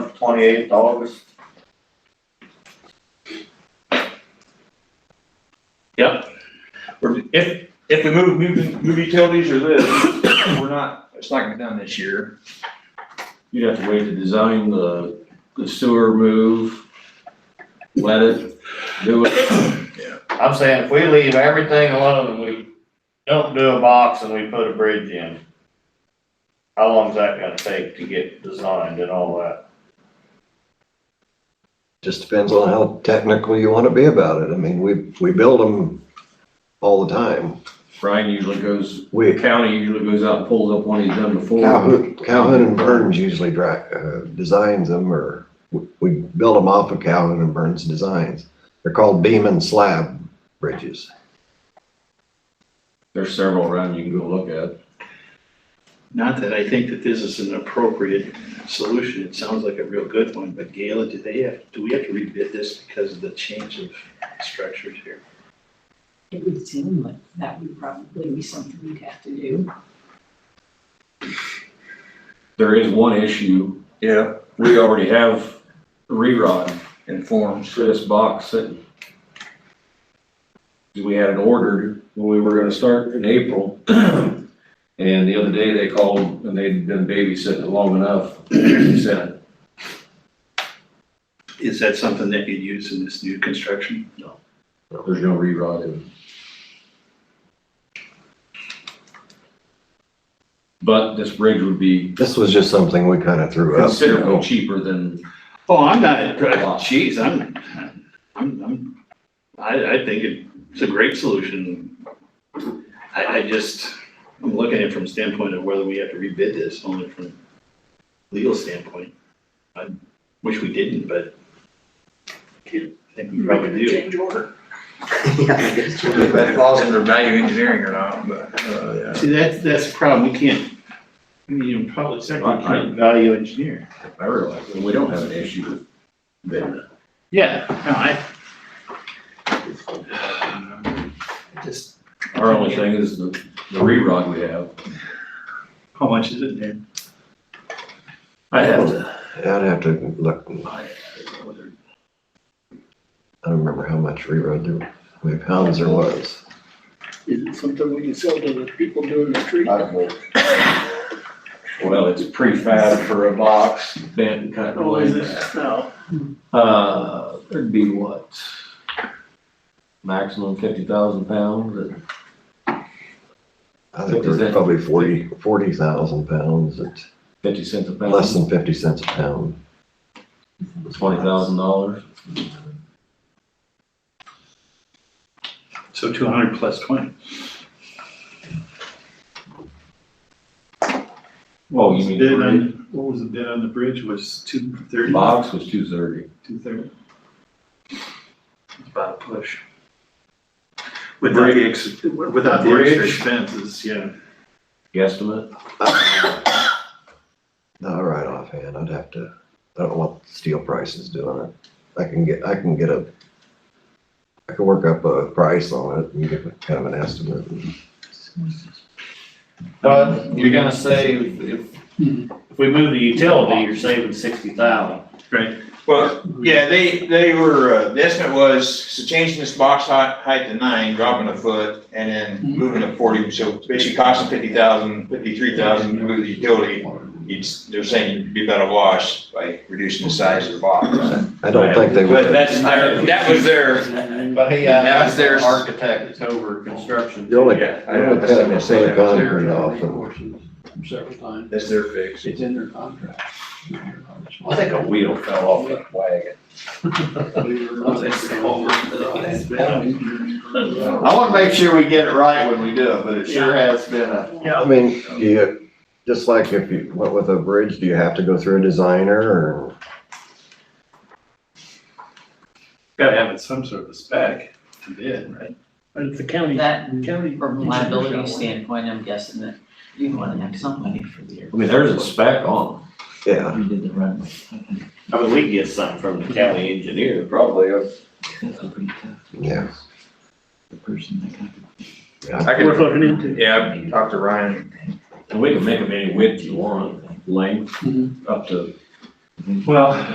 twenty-eighth, August. Or If, if we move, move, move utilities or this, we're not, it's not gonna be done this year. You'd have to wait to design the, the sewer move, let it, do it. I'm saying if we leave everything alone and we don't do a box and we put a bridge in, how long's that gonna take to get designed and all that? Just depends on how technical you want to be about it. I mean, we, we build them all the time. Brian usually goes, the We, county usually goes out and pulls up one he's done before. Calhoun, Calhoun and Burns usually dri uh, designs them or we- we build them off of Calhoun and Burns designs. They're called beam and slab bridges. There's several around you can go look at. Not that I think that this is an appropriate solution, it sounds like a real good one, but Gala, do they have, do we have to rebid this because of the change of structures here? It would seem like that would probably be something we'd have to do. There is one issue, Yeah. we already have rerod In forms. for this box sitting. We had it ordered when we were gonna start in April. And the other day they called and they'd been babysitting it long enough, sent it. Is that something that you'd use in this new construction? No. There's no rerod in it. But this bridge would be This was just something we kind of threw up. considerably cheaper than, Oh, I'm not, geez, I'm, I'm, I'm, I, I think it's a great solution. I, I just, I'm looking at it from standpoint of whether we have to rebid this, only from legal standpoint. I wish we didn't, but I think we probably do. If that falls under value engineering or not, but, uh, yeah. See, that's, that's the problem, we can't, I mean, in public sector, we can't value engineer. I realize, and we don't have an issue with that. Yeah, no, I. Just, Our only thing is the, the rerod we have. how much is it, Dan? I have to. I'd have to look, I I don't know whether- don't remember how much rerun there, how many pounds there was. Is it something we can sell to the people doing the tree? Well, it's prefab for a box, bent and cut. and Oh, is laid it? back. No. Uh, it'd be what? Maximum fifty thousand pounds, I think What is there's that? probably forty, forty thousand pounds at fifty cents a pound. less than fifty cents a pound. Twenty thousand dollars. So two hundred plus twenty. Oh, you mean. Bid bridge? on, what was the bid on the bridge, was two thirty, Box was two thirty. two thirty? It's about a push. Without the, Bridge. ex- without the extra Bridge. expenses, yeah. Guesstimate? Not right offhand, I'd have to, I don't know what the steel price is doing it. I can get, I can get a, I can work up a price on it and give a kind of an estimate. But you're gonna save, if, if we move the utility, you're saving sixty thousand. Well, yeah, they, they were, uh, the estimate was, so changing this box height, height to nine, dropping a foot, and then Mm-hmm. moving to forty, so basically costing fifty thousand, fifty-three thousand to move the utility. It's, they're saying you'd be better wash by reducing the size of the box. I don't think they But would, that's, their- that was their, But he, uh, That's their- architect that's over construction. the only, yeah. I don't cut the same concrete off and Several times, That's their fix. it's in their contract. I think a wheel fell off that wagon. I wanna make sure we get it right when we do it, but it sure has been a, I mean, do you, just like if you went with a bridge, do you have to go through a designer or? Gotta have it some sort of a spec to bid, right? But it's the county, That, county. from a liability standpoint, I'm guessing that you want to have some money for the. I mean, there's a spec on Yeah, You did the runway. I mean, we can get something from the county engineer, probably, uh, That's a pretty tough, yeah. the person that got I We're could, looking into. yeah, I talked to Ryan. it. And we can make them any width you want, length, up to Well,